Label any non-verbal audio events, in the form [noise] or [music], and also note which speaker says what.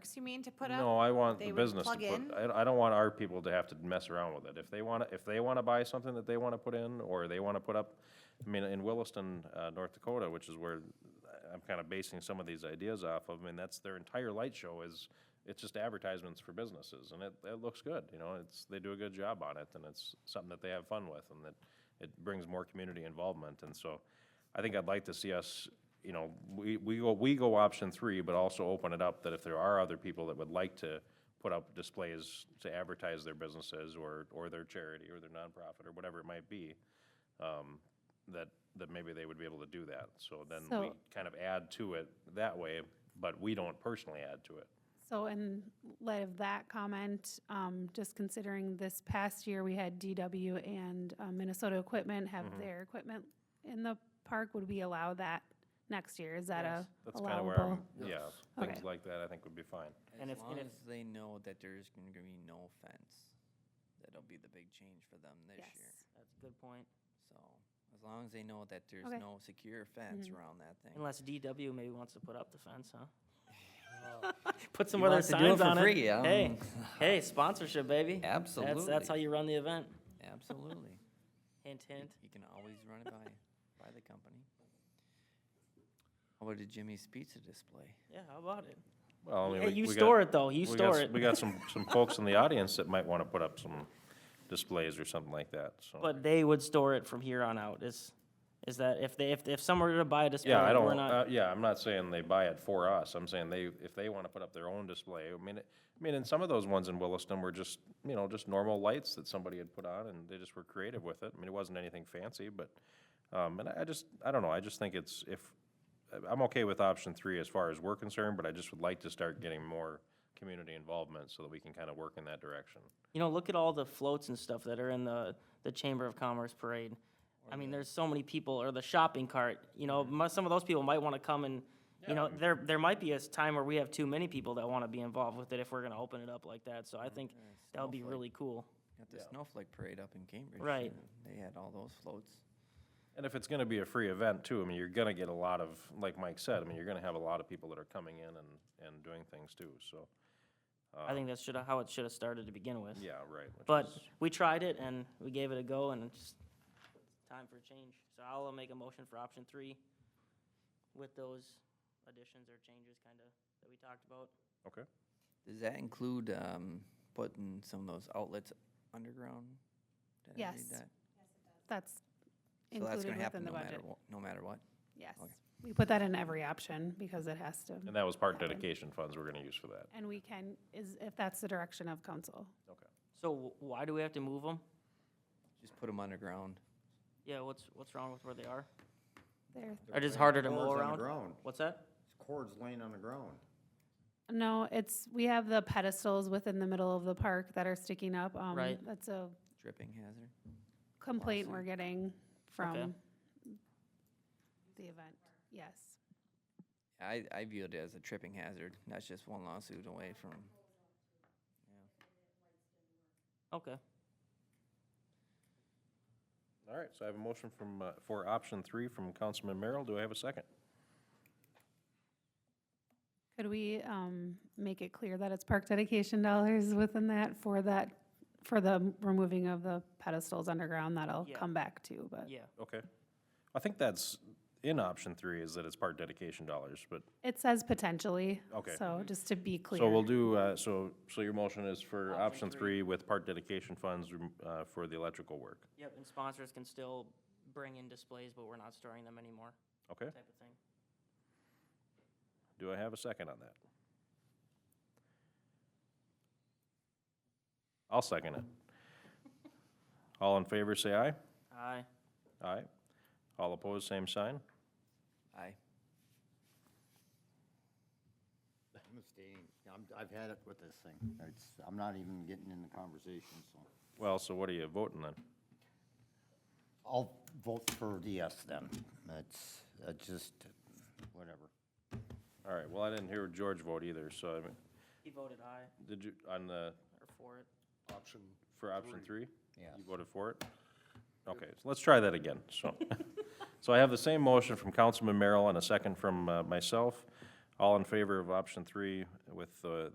Speaker 1: Works, you mean, to put up?
Speaker 2: No, I want
Speaker 1: They
Speaker 2: the
Speaker 1: would
Speaker 2: business to
Speaker 1: plug in?
Speaker 2: put, I, I don't want our people to have to mess around with it. If they wanna, if they wanna buy something that they wanna put in, or they wanna put up, I mean, in Williston, uh, North Dakota, which is where I'm kinda basing some of these ideas off of, I mean, that's their entire light show is, it's just advertisements for businesses, and it, it looks good, you know, it's, they do a good job on it, and it's something that they have fun with, and that it brings more community involvement, and so I think I'd like to see us, you know, we, we go, we go option three, but also open it up that if there are other people that would like to put up displays to advertise their businesses or, or their charity or their nonprofit or whatever it might be, um, that, that maybe they would be able to do that. So then we
Speaker 3: So-
Speaker 2: kind of add to it that way, but we don't personally add to it.
Speaker 3: So in light of that comment, um, just considering this past year, we had DW and um, Minnesota Equipment have
Speaker 4: Mm-hmm.
Speaker 3: their equipment in the park, would we allow that next year? Is that a
Speaker 2: That's kind of where
Speaker 3: allowable?
Speaker 2: I'm, yeah,
Speaker 3: Okay.
Speaker 2: things like that I think would be fine.
Speaker 5: And
Speaker 4: As
Speaker 5: if- and
Speaker 4: long
Speaker 5: if-
Speaker 4: as they know that there's going to be no fence, that'll be the big change for them this
Speaker 3: Yes.
Speaker 4: year.
Speaker 5: That's a good point.
Speaker 4: So as long as they know that there's
Speaker 3: Okay. Mm-hmm.
Speaker 4: no secure fence around that thing.
Speaker 5: Unless DW maybe wants to put up the fence,
Speaker 4: [laughs]
Speaker 5: huh? Put some other
Speaker 4: wants to do it
Speaker 5: signs
Speaker 4: for
Speaker 5: on it.
Speaker 4: free, I [laughs]
Speaker 5: Hey,
Speaker 4: don't-
Speaker 5: hey, sponsorship, baby. That's- That's
Speaker 4: Absolutely.
Speaker 5: how you run the event.
Speaker 4: Absolutely.
Speaker 5: Hint, hint.
Speaker 4: You can always run it by, by the company. How about a Jimmy's Pizza display?
Speaker 5: Yeah, how about it?
Speaker 2: Well, I mean,
Speaker 5: Hey,
Speaker 2: we-
Speaker 5: you
Speaker 2: we got-
Speaker 5: store it though, you
Speaker 2: we got
Speaker 5: store
Speaker 2: s-
Speaker 5: it.
Speaker 2: We got some, some folks in the audience that might want to put up some displays or something like that, so.
Speaker 5: But they would store it from here on out, is, is that if they, if, if someone were to buy a display,
Speaker 2: Yeah, I
Speaker 5: we're
Speaker 2: don't,
Speaker 5: not,
Speaker 2: uh, yeah, I'm not saying they buy it for us, I'm saying they, if they wanna put up their own display, I mean, it- I mean, and some of those ones in Williston were just, you know, just normal lights that somebody had put on, and they just were creative with it, I mean, it wasn't anything fancy, but, um, and I I just, I don't know, I just think it's, if, I'm okay with option three as far as we're concerned, but I just would like to start getting more community involvement, so that we can kinda work in that direction.
Speaker 5: you know, look at all the floats and stuff that are in the, the Chamber of Commerce parade. I mean, there's so many people, or the shopping cart, you know, mu- some of those people might wanna come and, you know, there, there might be a s- time where we have too many people that wanna be involved with it if we're gonna open it up like that, so I think [laughs] that would be
Speaker 4: snowflake.
Speaker 5: really cool.
Speaker 4: Got the snowflake parade up in Cambridge.
Speaker 5: Right.
Speaker 4: and They had all those floats.
Speaker 2: And if it's gonna be a free event too, I mean, you're gonna get a lot of, like Mike said, I mean, you're gonna have a lot of people that are coming in and, and doing things too, so, um,
Speaker 5: I think that's should, how it should've started to begin with.
Speaker 2: Uh. yeah, right. which
Speaker 5: But
Speaker 2: is-
Speaker 5: we tried it and we gave it a go and it's just time for a change. So I'll uh, make a motion for option three with those additions or changes kinda that we talked about.
Speaker 2: Okay,
Speaker 4: Does that include, um, putting some of those outlets underground? Did I read
Speaker 3: Yes,
Speaker 4: that?
Speaker 3: That's
Speaker 4: So that's
Speaker 3: included
Speaker 4: gonna
Speaker 3: within
Speaker 4: happen
Speaker 3: the
Speaker 4: no matter
Speaker 3: budget.
Speaker 4: what, no matter what?
Speaker 3: Yes, we put that in every option because it has to,
Speaker 2: and that was part dedication funds we're gonna use for that.
Speaker 3: and we can, is, if that's the direction of council.
Speaker 5: So wh- why do we have to move them?
Speaker 4: Just put them underground.
Speaker 5: Yeah, what's, what's wrong with where they are?
Speaker 3: There,
Speaker 5: Are just harder to
Speaker 6: Cords
Speaker 5: mow
Speaker 6: on the
Speaker 5: around?
Speaker 6: ground.
Speaker 5: What's that?
Speaker 6: Cords laying on the ground.
Speaker 3: no, it's, we have the pedestals within the middle of the park that are sticking up. um,
Speaker 5: Right.
Speaker 3: That's a
Speaker 4: Dripping hazard.
Speaker 3: complaint we're getting
Speaker 5: Okay.
Speaker 3: from the event, yes.
Speaker 4: I, I view it as a tripping hazard. That's just one lawsuit away from,
Speaker 5: Okay,
Speaker 2: All right, so I have a motion from, uh, for option three from Councilman Merrill, do I have a second?
Speaker 3: Could we um, make it clear that it's park dedication dollars within that for that, for the removing of the pedestals underground? That'll
Speaker 5: Yeah.
Speaker 3: come back to, but
Speaker 5: yeah.
Speaker 2: Okay, I think that's in option three is that it's part dedication dollars, but,
Speaker 3: it says potentially.
Speaker 2: Okay.
Speaker 3: So just to be clear.
Speaker 2: so we'll do, uh, so, so your motion is for option three with part dedication funds, rem- uh, for the electrical work,
Speaker 5: Yep, and sponsors can still bring in displays, but we're not storing them anymore,
Speaker 2: okay?
Speaker 5: type of thing.
Speaker 2: Do I have a second on that? I'll second it. All in favor, say aye.
Speaker 5: Aye.
Speaker 2: Aye. All opposed, same sign.
Speaker 4: I,
Speaker 6: I'm abstaining. I'm, I've had it with this thing. It's, I'm not even getting in the conversation, so.
Speaker 2: Well, so what are you voting then?
Speaker 6: I'll vote for the yes then. That's, that's just, whatever.
Speaker 2: All right, well, I didn't hear George vote either, so, I mean,
Speaker 5: He voted aye,
Speaker 2: did you, on the,
Speaker 5: or for it.
Speaker 7: option.
Speaker 2: for option three?
Speaker 6: Yes.
Speaker 2: You voted for it? Okay, so let's try that again, [laughs] so. So I have the same motion from Councilman Merrill and a second from uh, myself. All in favor of option three with uh, the